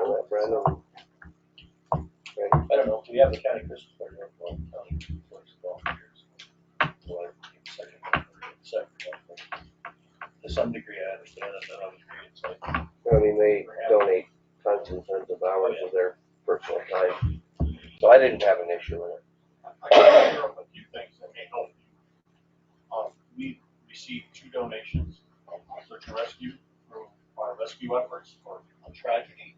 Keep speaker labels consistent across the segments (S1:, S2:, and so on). S1: on that, Brandon?
S2: I don't know, we have the county Christmas party, we have one county works volunteers. Well, I- second one, second one. To some degree, I understand it, but I would agree, it's like,
S1: I mean, they donate tons and tons of hours of their personal time. So I didn't have an issue with it.
S3: I can share a few things that may help you. Um, we received two donations from search and rescue through our rescue efforts for a tragedy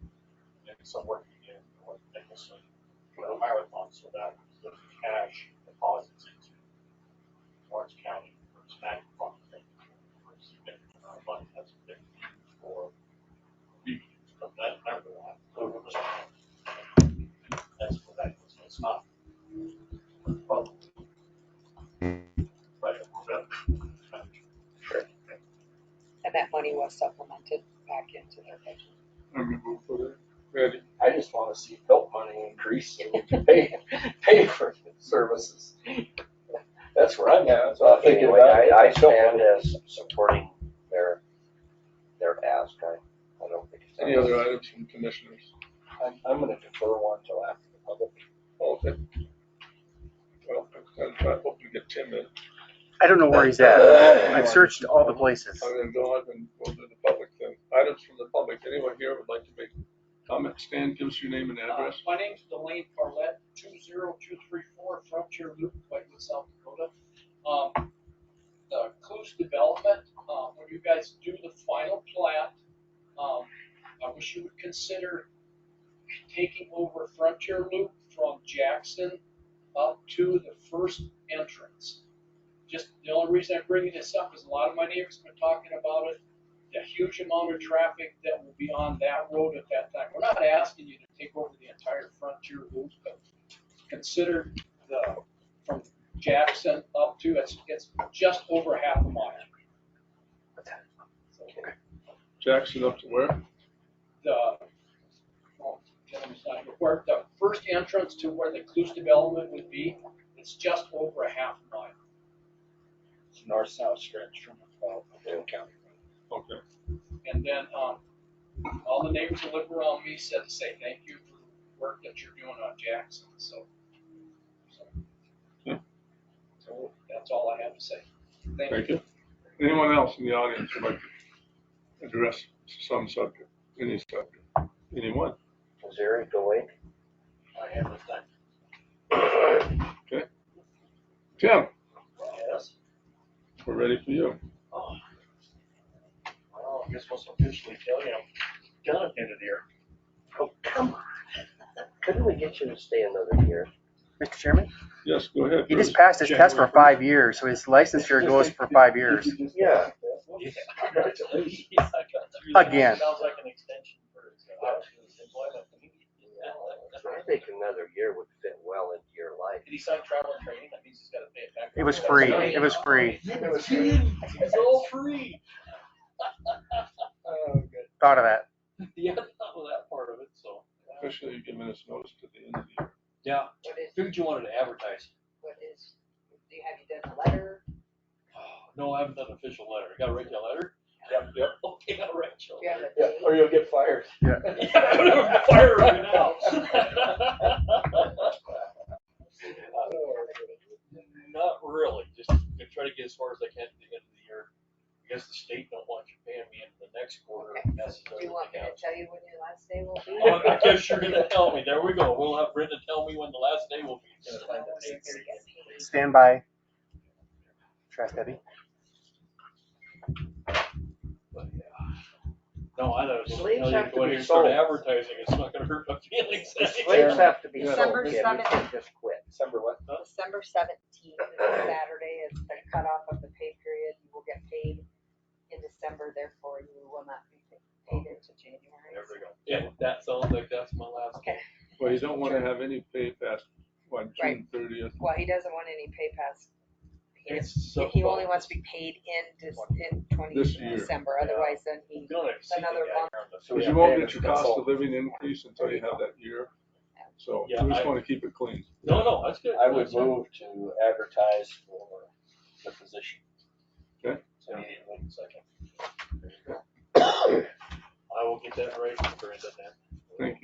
S3: and some work we did for Nicholson for the marathon, so that was cash deposits into Orange County for snack fund. thing, for a significant amount of money that's been used for reuse of that everyone. That's what that is, it's not. public. Right, that-
S4: And that money was supplemented back into their budget.
S5: I just wanna see help money increase so we can pay, pay for services. That's where I'm at, that's what I'm thinking
S1: Anyway, I,
S5: about.
S1: I
S5: Help money.
S1: stand as supporting their, their ask. I, I don't think it's.
S6: Any other items from commissioners?
S5: I'm, I'm gonna defer one till after the public.
S6: Okay. Well, I I hope we get Tim in.
S7: I don't know where he's at. I've searched all the places.
S6: I'm gonna go on and go to the public then. Items from the public. Anyone here would like to make comment? Stan, give us your name and
S8: Uh,
S6: address.
S8: My name's Delane Parlett, two zero two three four Frontier Loop, Whitewood, South Dakota. Um, the Clues Development, um, when you guys do the final plat, um, I wish you would consider taking over Frontier Loop from Jackson up to the first entrance. Just, the only reason I'm bringing this up is a lot of my neighbors have been talking about it the huge amount of traffic that will be on that road at that time. We're not asking you to take over the entire frontier loop, but consider the, from Jackson up to, it's, it's just over half a mile. So,
S6: Jackson up to where?
S8: The, oh, well, gentleman's not here. where the first entrance to where the Clues development would be, it's just over a half mile.
S5: It's north-south stretch from Caldwell County.
S6: Okay.
S8: And then, um, all the neighbors that live around me said to say thank you for the work that you're doing on Jackson, so. so-
S6: Yeah.
S8: So that's all I have to say. Thank you.
S6: Thank you. Anyone else in the audience would like to address some subject, any subject? Anyone?
S1: Is there a delay?
S3: I have a thing.
S6: Tim,
S3: Yes.
S6: we're ready for you.
S3: Oh. Well, I guess what's officially tell you, I'm done at the end of the year.
S1: Oh, come on. Couldn't we get you to stay another year?
S7: Mr. Chairman,
S6: Yes, go ahead.
S7: he just passed his test for five years, so his licensure goes for five years.
S1: Yeah.
S3: Congratulations.
S2: I got three.
S7: Again.
S2: Sounds like an extension for his uh, employment.
S1: I think another year would fit well into your life.
S2: Did he sign travel and training? That means he's gotta pay it back.
S7: It was free. It was free.
S2: It's all free.
S3: Oh, good.
S7: Thought of that.
S2: Yeah, well, that part of it, so.
S6: Especially giving us notice to the end of the year.
S2: Yeah,
S4: What is,
S2: who'd you wanted to advertise?
S4: what is, do you, have you done a letter?
S2: No, I haven't done an official letter. I gotta write you a letter?
S5: Yep, yep.
S2: Okay, I'll write you a letter.
S4: Do you have a
S5: Yeah,
S4: date?
S5: or you'll get fired.
S2: I'm gonna fire right now.
S4: Do you have a date?
S2: Not really, just gonna try to get as far as I can to the end of the year. Because the state don't want you paying me into the next quarter
S4: Okay. Do
S2: necessarily.
S4: you want me to tell you when your last day will be?
S2: Oh, I guess you're gonna tell me, there we go, we'll have Brenda tell me when the last day will be.
S4: Just like when you're gonna get paid.
S7: Stand by. Trash Debbie.
S2: But, yeah. No, I don't, know.
S1: Slaves
S2: you
S1: have to
S2: go
S1: be
S2: ahead and start
S1: sold.
S2: advertising, it's not gonna hurt my feelings.
S1: Slaves have to be sold,
S4: December
S1: Kim, you can't just quit.
S5: December what?
S4: December seventeenth, Saturday is the cutoff of the pay period, you will get paid in December, therefore you will not be paid into January.
S2: There we go. Yeah, that sounds like that's my last.
S4: Okay,
S6: Well, you don't wanna have any pay past, what, June
S4: Right.
S6: thirtieth?
S4: well, he doesn't want any pay pass. He
S2: It's
S4: just-
S2: so
S4: He only
S2: fun.
S4: wants to be paid in, Dec- in twenty,
S6: This year.
S4: December,
S2: Yeah.
S4: otherwise then he,
S2: Don't exceed the
S4: Another
S2: guy
S4: month.
S2: around the-
S6: So you
S5: Yeah,
S6: won't
S5: pay
S6: get
S5: it
S6: your
S5: as
S6: cost
S5: all.
S6: of living increase until you have that year. So we
S2: Yeah,
S6: just
S2: I-
S6: wanna keep it clean.
S2: No, no, that's good.
S5: I would
S2: That's good.
S5: move to advertise for the position.
S6: Okay.
S5: Immediately, second.
S2: I will get that right for Brenda then.
S6: Thank you.